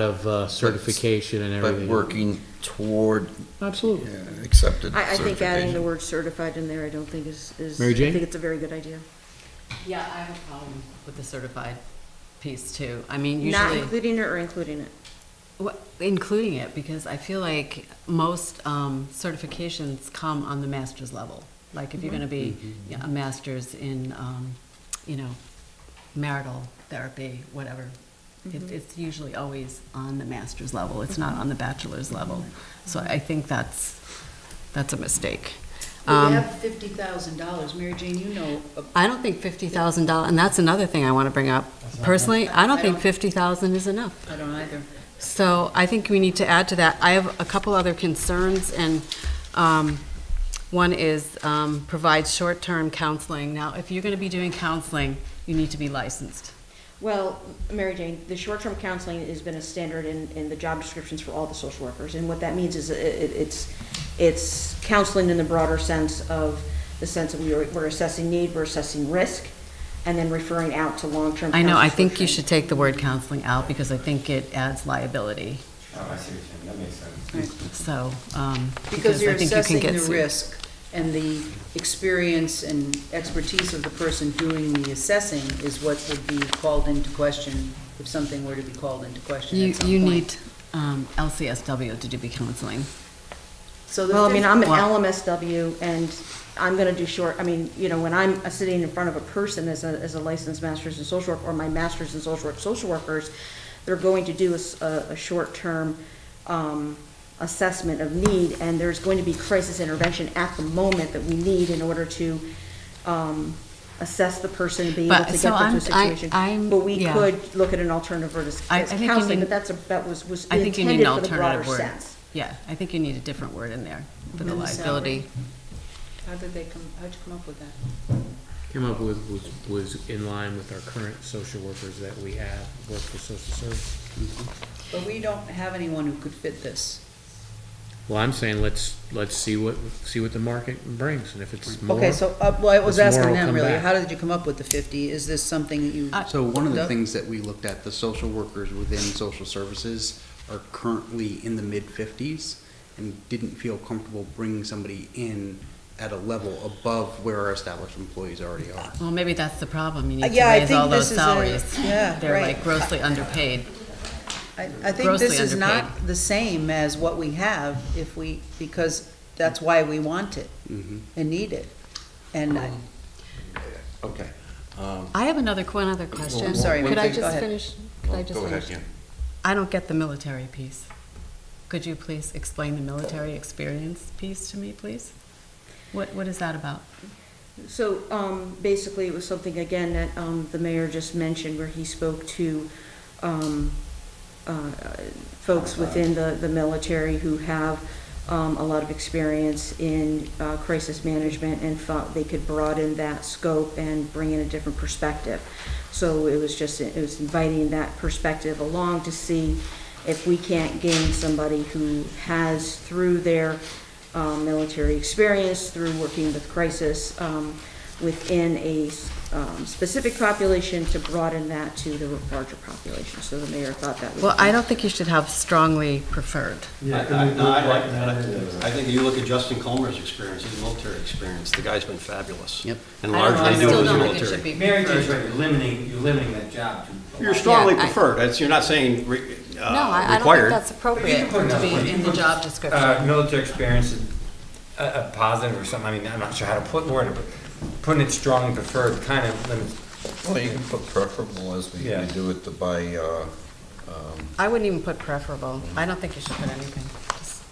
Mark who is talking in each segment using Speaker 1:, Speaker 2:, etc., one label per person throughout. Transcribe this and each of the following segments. Speaker 1: of uh, certification and
Speaker 2: But
Speaker 1: everything.
Speaker 2: working toward
Speaker 1: Absolutely.
Speaker 2: yeah, accepted
Speaker 3: I, I think adding the
Speaker 2: certification.
Speaker 3: word certified in there, I don't think is, is.
Speaker 1: Mary Jane?
Speaker 3: I think it's a very good idea.
Speaker 4: Yeah, I have a problem with the certified piece too. I mean,
Speaker 3: Not
Speaker 4: usually,
Speaker 3: including it or including it?
Speaker 4: Wha- including it, because I feel like most um, certifications come on the master's level. Like if you're gonna be yeah, a master's in, um, you know, marital therapy, whatever.
Speaker 3: Mm-hmm.
Speaker 4: It- It's usually always on the master's level. It's not on the bachelor's level. So
Speaker 3: Mm-hmm.
Speaker 4: I think that's, that's a mistake.
Speaker 5: We
Speaker 4: Um,
Speaker 5: have fifty thousand dollars, Mary Jane, you know, uh,
Speaker 4: I don't think fifty thousand dollars, and that's another thing I want to bring up. Personally, I don't think fifty thousand is enough.
Speaker 5: I don't either.
Speaker 4: So I think we need to add to that. I have a couple other concerns, and um, one is um, provide short-term counseling. Now, if you're going to be doing counseling, you need to be licensed.
Speaker 3: Well, Mary Jane, the short-term counseling has been a standard in, in the job descriptions for all the social workers. And what that means is it, it- it's, it's counseling in the broader sense of, the sense of we are, we're assessing need, we're assessing risk, and then referring out to long-term.
Speaker 4: I know, I
Speaker 3: counselors for
Speaker 4: think you
Speaker 3: training.
Speaker 4: should take the word counseling out, because I think it adds liability,
Speaker 6: Oh, I see what you're saying, that makes sense.
Speaker 4: so. um,
Speaker 5: Because you're
Speaker 4: I think you can
Speaker 5: assessing
Speaker 4: get
Speaker 5: the
Speaker 4: sued.
Speaker 5: risk and the experience and expertise of the person doing the assessing is what would be called into question if something were to be called into question
Speaker 4: You,
Speaker 5: at some
Speaker 4: you
Speaker 5: point.
Speaker 4: need um, LCSW to do be counseling.
Speaker 5: So the
Speaker 3: Well, I mean, I'm an
Speaker 4: Wow.
Speaker 3: LMSW and I'm gonna do short, I mean, you know, when I'm sitting in front of a person as a, as a licensed master's in social work or my master's in social work, social workers, they're going to do a s- a, a short-term, um, assessment of need and there's going to be crisis intervention at the moment that we need in order to, um, assess the person and be able
Speaker 4: But-
Speaker 3: to get
Speaker 4: so
Speaker 3: them to a
Speaker 4: I'm- I-
Speaker 3: situation.
Speaker 4: I'm-
Speaker 3: But we
Speaker 4: yeah.
Speaker 3: could look at an alternative word as
Speaker 4: I- I
Speaker 3: as
Speaker 4: think you
Speaker 3: counseling,
Speaker 4: need-
Speaker 3: but that's a, that was, was
Speaker 4: I think you need
Speaker 3: intended
Speaker 4: an
Speaker 3: for the broader
Speaker 4: alternative word.
Speaker 3: sense.
Speaker 4: Yeah, I think you need a different word in there for the
Speaker 5: And the
Speaker 4: liability.
Speaker 5: How did they come, how'd you come up with that?
Speaker 1: Came up with, was, was in line with our current social workers that we have, work for social service.
Speaker 5: But we don't have anyone who could fit this.
Speaker 1: Well, I'm saying let's, let's see what, see what the market brings and if it's more.
Speaker 5: Okay, so, uh, well, I
Speaker 1: It's
Speaker 5: was
Speaker 1: more
Speaker 5: asking
Speaker 1: will
Speaker 5: them
Speaker 1: come
Speaker 5: really,
Speaker 1: back.
Speaker 5: how did you come up with the fifty? Is this something that you?
Speaker 4: I-
Speaker 7: So one of the
Speaker 5: Doug?
Speaker 7: things that we looked at, the social workers within social services are currently in the mid-fifties and didn't feel comfortable bringing somebody in at a level above where our established employees already are.
Speaker 4: Well, maybe that's the problem. You
Speaker 5: Uh,
Speaker 4: need to
Speaker 5: yeah, I
Speaker 4: raise all
Speaker 5: think this
Speaker 4: those
Speaker 5: is a-
Speaker 4: salaries.
Speaker 5: yeah,
Speaker 4: They're
Speaker 5: right.
Speaker 4: like grossly underpaid.
Speaker 5: I, I think
Speaker 4: grossly
Speaker 5: this is not
Speaker 4: underpaid.
Speaker 5: the same as what we have if we, because that's why we want it
Speaker 7: Mhm.
Speaker 5: and need it. And I-
Speaker 6: Okay.
Speaker 4: I have another, one other question.
Speaker 6: I'm sorry,
Speaker 4: Could
Speaker 6: one
Speaker 4: I
Speaker 6: thing- go
Speaker 4: just
Speaker 5: ahead.
Speaker 4: finish? Could I
Speaker 6: Well,
Speaker 4: just
Speaker 6: Go ahead,
Speaker 4: finish?
Speaker 6: yeah.
Speaker 4: I don't get the military piece. Could you please explain the military experience piece to me, please? What, what is that about?
Speaker 3: So, um, basically, it was something, again, that, um, the mayor just mentioned, where he spoke to, um, uh, folks within the, the military who have, um, a lot of experience in, uh, crisis management and thought they could broaden that scope and bring in a different perspective. So it was just, it was inviting that perspective along to see if we can't gain somebody who has, through their, um, military experience, through working with crisis um, within a um, specific population to broaden that to the larger population. So the mayor thought that would.
Speaker 4: Well, I
Speaker 3: be-
Speaker 4: don't think you should have strongly preferred.
Speaker 6: I- I- no, I like that. I- I think you look at Justin Colmer's experience, his military experience, the guy's been fabulous.
Speaker 7: Yep.
Speaker 6: And
Speaker 4: I don't know, I
Speaker 6: largely due to
Speaker 4: Uh, still
Speaker 6: his
Speaker 4: don't think it should
Speaker 6: military.
Speaker 4: be
Speaker 6: Mary
Speaker 4: preferred.
Speaker 6: Jane's right, you're limiting, you're limiting that job to.
Speaker 4: Yeah,
Speaker 6: You're strongly
Speaker 4: I-
Speaker 6: preferred, that's, you're not saying re-
Speaker 4: No, I,
Speaker 6: uh,
Speaker 4: I don't think
Speaker 6: required.
Speaker 4: that's appropriate
Speaker 6: But you
Speaker 4: to
Speaker 6: can put it
Speaker 4: be in the job description.
Speaker 6: Uh, military experience, is a, a positive or something, I mean, I'm not sure how to put word, but putting it strongly preferred kind of limits.
Speaker 8: Well, you can put preferable as we
Speaker 6: Yeah.
Speaker 8: we do it to by, uh,
Speaker 4: I wouldn't even put preferable. I don't think you should put anything. Just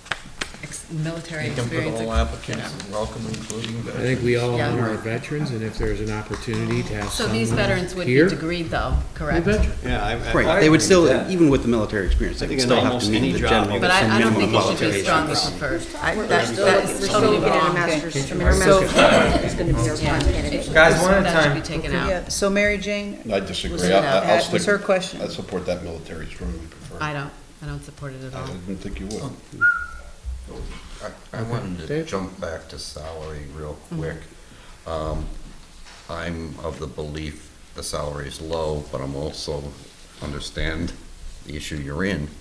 Speaker 4: ex- Military
Speaker 8: you can put
Speaker 4: experience.
Speaker 8: all
Speaker 4: ex-
Speaker 8: applicants,
Speaker 4: yeah.
Speaker 8: welcome including
Speaker 1: I think we all
Speaker 4: Yeah.
Speaker 1: honor our veterans and if there's an opportunity to have
Speaker 4: So
Speaker 1: someone
Speaker 4: these veterans would be
Speaker 1: here,
Speaker 4: degreed though,
Speaker 1: they're
Speaker 4: correct?
Speaker 1: veterans.
Speaker 6: Yeah, I. I- I
Speaker 7: Right, they would
Speaker 6: agree
Speaker 7: still,
Speaker 6: with that.
Speaker 7: even with the military experience,
Speaker 6: I
Speaker 7: they would
Speaker 6: think in
Speaker 7: still have
Speaker 6: almost
Speaker 7: to meet
Speaker 6: any
Speaker 7: the
Speaker 6: job,
Speaker 7: general.
Speaker 6: you-
Speaker 4: But I, I don't
Speaker 7: minimum
Speaker 4: think it should be
Speaker 6: military
Speaker 4: strongly
Speaker 6: experience.
Speaker 4: preferred. I-
Speaker 3: We're
Speaker 4: that-
Speaker 3: still
Speaker 4: that's
Speaker 3: looking- we're still
Speaker 4: totally
Speaker 3: looking at a
Speaker 4: wrong.
Speaker 3: master's, I mean, our
Speaker 5: So-
Speaker 3: master's program is gonna be our prime candidate.
Speaker 6: Guys, one at a
Speaker 4: That should
Speaker 6: time.
Speaker 4: be taken out.
Speaker 5: yeah, so Mary Jane?
Speaker 9: I disagree.
Speaker 4: Was
Speaker 9: I-
Speaker 4: it out?
Speaker 9: I- I'll
Speaker 5: That was her
Speaker 9: stick-
Speaker 5: question.
Speaker 9: I support that military strongly preferred.
Speaker 4: I don't, I don't support it at
Speaker 9: I
Speaker 4: all.
Speaker 9: didn't think you would.
Speaker 8: I- I wanted to
Speaker 1: Dave?
Speaker 8: jump back to salary real
Speaker 4: Mm-hmm.
Speaker 8: quick. Um, I'm of the belief the salary is low, but I'm also understand the issue you're in.